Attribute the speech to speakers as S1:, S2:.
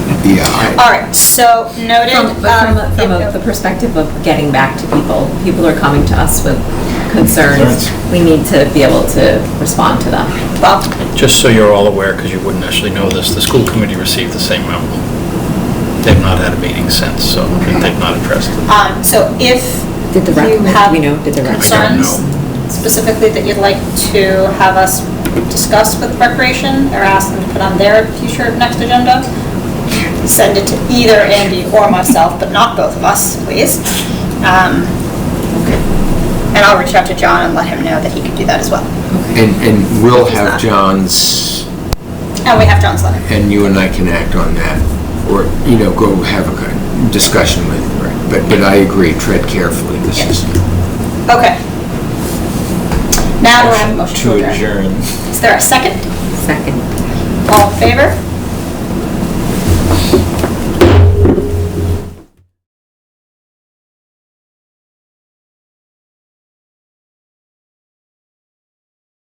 S1: Yeah, I-
S2: All right, so noted.
S3: From, but
S2: um,
S3: from, a- from a- the perspective of getting back to people, people are coming to us with concerns. We need to be able to respond to them.
S2: Bob,
S4: Just so you're all aware, because you wouldn't actually know this, the school committee received the same memo. They've not had a meeting since, so they've not addressed it.
S2: um, So if
S3: Did the rec-
S2: you have
S3: we know, did the rec-
S2: concerns specifically that you'd like to have us discuss with Recreation or ask them to put on their future next agenda, send it to either Andy or myself, but not both of us, please. Um, And I'll reach out to John and let him know that he can do that as well.
S1: and, and we'll have John's,
S2: And we have John's letter.
S1: and you and I can act on that, or, you know, go have a good discussion with, but, but I agree, tread carefully, this is.
S2: Okay. Now do I have a motion to
S5: adjourn.
S2: adjourn? Is there a second?
S3: Second.
S2: All in favor?